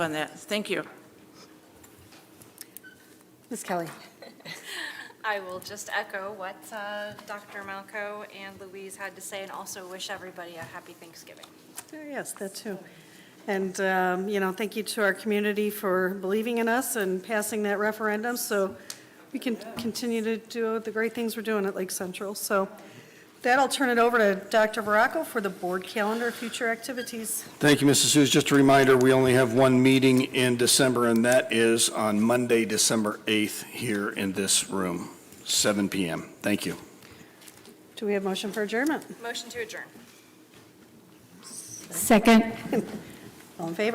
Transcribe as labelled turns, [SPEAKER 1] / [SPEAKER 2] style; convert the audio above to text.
[SPEAKER 1] on that. Thank you.
[SPEAKER 2] Ms. Kelly?
[SPEAKER 3] I will just echo what uh, Dr. Malco and Louise had to say, and also wish everybody a happy Thanksgiving.
[SPEAKER 2] Yes, that too. And, um, you know, thank you to our community for believing in us and passing that referendum, so we can continue to do the great things we're doing at Lake Central. So with that, I'll turn it over to Dr. Veraco for the board calendar, future activities.
[SPEAKER 4] Thank you, Mrs. Hughes. Just a reminder, we only have one meeting in December, and that is on Monday, December 8th, here in this room, 7 PM. Thank you.
[SPEAKER 2] Do we have motion for adjournment?
[SPEAKER 3] Motion to adjourn.
[SPEAKER 5] Second.
[SPEAKER 2] All in favor?